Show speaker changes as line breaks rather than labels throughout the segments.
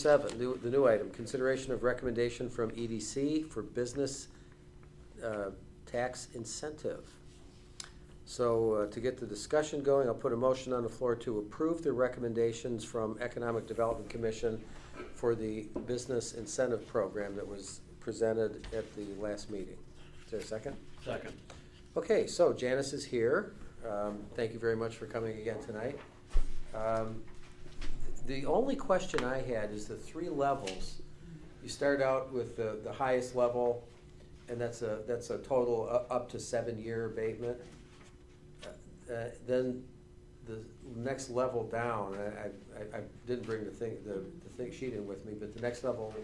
Seven, new- the new item, consideration of recommendation from EDC for business uh, tax incentive. So uh, to get the discussion going, I'll put a motion on the floor to approve the recommendations from Economic Development Commission for the business incentive program that was presented at the last meeting. Is there a second?
Second.
Okay, so Janice is here. Um, Thank you very much for coming again tonight. Um, The only question I had is the three levels. You start out with the, the highest level, and that's a, that's a total u- up to seven-year abatement. Uh, Then the next level down, and I, I- I didn't bring the thing, the, the thing sheet in with me, but the next level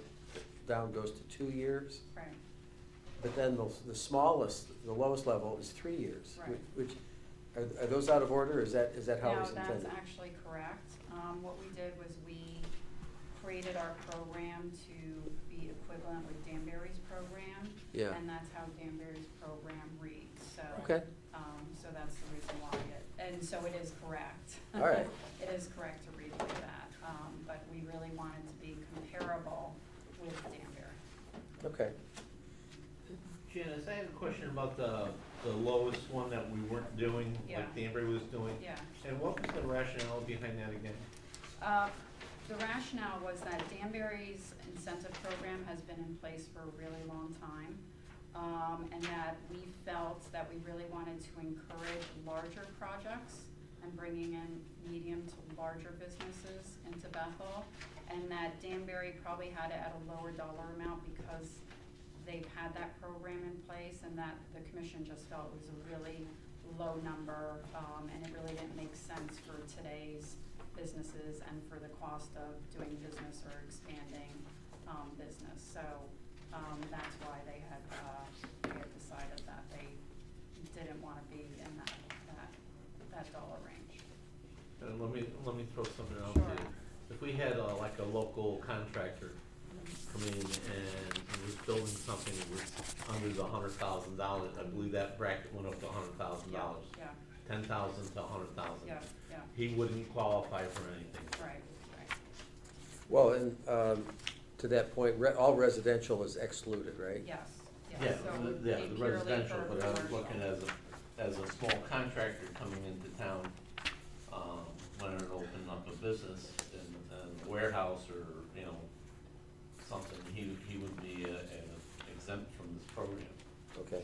down goes to two years.
Right,
But then the, the smallest, the lowest level is three years.
Right.
Which, are, are those out of order, or is that, is that how it
no,
was intended?
that's actually correct. Um, what we did was we created our program to be equivalent with Danbury's program.
Yeah.
And that's how Danbury's program reads, so.
Okay,
Um, so that's the reason why it, and so it is correct.
All right.
It is correct to read like that, um, but we really wanted to be comparable with Danbury.
okay.
Janice, I have a question about the, the lowest one that we weren't doing,
Yeah.
like Danbury was doing.
Yeah.
And what was the rationale behind that again?
Uh, The rationale was that Danbury's incentive program has been in place for a really long time, um, and that we felt that we really wanted to encourage larger projects and bringing in medium to larger businesses into Bethel, and that Danbury probably had it at a lower dollar amount because they've had that program in place, and that the commission just felt it was a really low number, um, and it really didn't make sense for today's businesses and for the cost of doing business or expanding, um, business. So, um, that's why they had, uh, they had decided that they didn't wanna be in that, that, that dollar range.
And Uh, let me, let me throw something out
Sure.
there. If we had uh, like a local contractor come in and was building something that was under the hundred thousand dollars, I believe that bracket went up to hundred thousand dollars.
Yeah,
Ten thousand to a hundred thousand.
yeah, yeah,
He wouldn't qualify for anything.
right, right.
Well, and, um, to that point, re- all residential is excluded, right?
Yes,
Yeah,
yes. So it
the-
would
yeah,
be
the
purely
residential,
for
but I was
commercial.
looking as a, as a small contractor coming into town, um, wanting to open up a business in a warehouse or, you know, something, he, he would be uh, uh, exempt from this program.
Okay,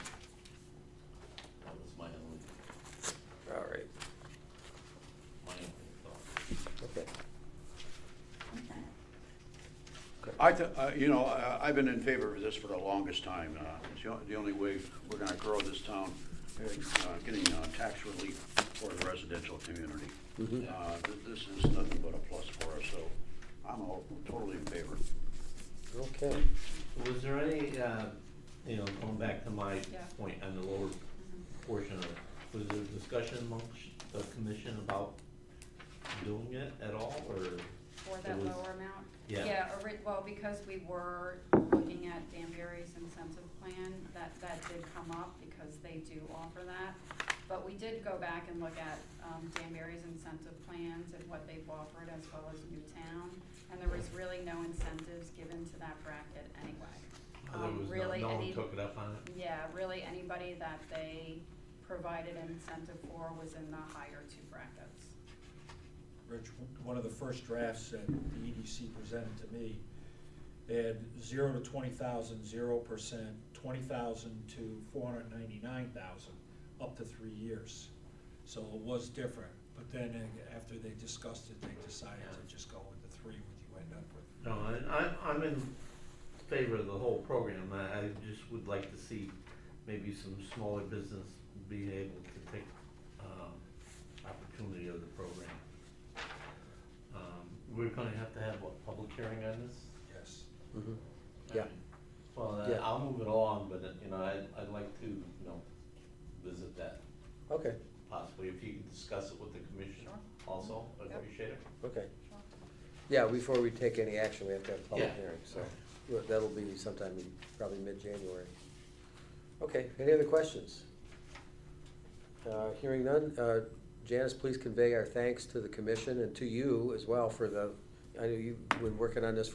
That was my only,
all right,
my only thought.
okay.
I, th- uh, you know, I- I've been in favor of this for the longest time. Uh, It's the on- the only way we're going to grow this town, uh, getting uh, tax relief for the residential community.
Mhm.
Uh, th- This is nothing but a plus for us, so I'm all- totally in favor.
Okay,
Was there any, uh, you know, going back to my
Yeah.
point on the lower portion of, it, was there discussion amongst the commission about doing it at all, or?
For
It
that
was-
lower amount?
Yeah.
ori- well, because we were looking at Danbury's incentive plan, that, that did come up because they do offer that. But we did go back and look at, um, Danbury's incentive plans and what they've offered as well as Newtown. And there was really no incentives given to that bracket anyway.
There
Um,
was no-
really
no one
any-
took it up on it?
Yeah, really anybody that they provided an incentive for was in the higher two brackets.
Rich, one of the first drafts that the EDC presented to me, they had zero to twenty thousand, zero percent, twenty thousand to four hundred ninety-nine thousand, up to three years. So it was different, but then uh, after they discussed it, they decided
Yeah.
to just go with the three, what you end up with.
No, I, I'm, I'm in favor of the whole program, I, I just would like to see maybe some smaller business being able to take, um, opportunity of the program. Um, we're gonna have to have, what, public hearing on this?
Yes.
mhm. Yeah.
Well, I-
Yeah.
I'll move it along, but, uh, you know, I, I'd like to, you know, visit that
okay,
possibly, if you could discuss it with the commission
Sure.
also, I'd
Yep.
appreciate it.
okay.
Sure.
Yeah, before we take any action, we have to have a public
Yeah.
hearing, so well, that'll be sometime in probably mid-January. Okay, any other questions? Uh, Hearing none, uh, Janice, please convey our thanks to the commission and to you as well for the, I know you've been working on this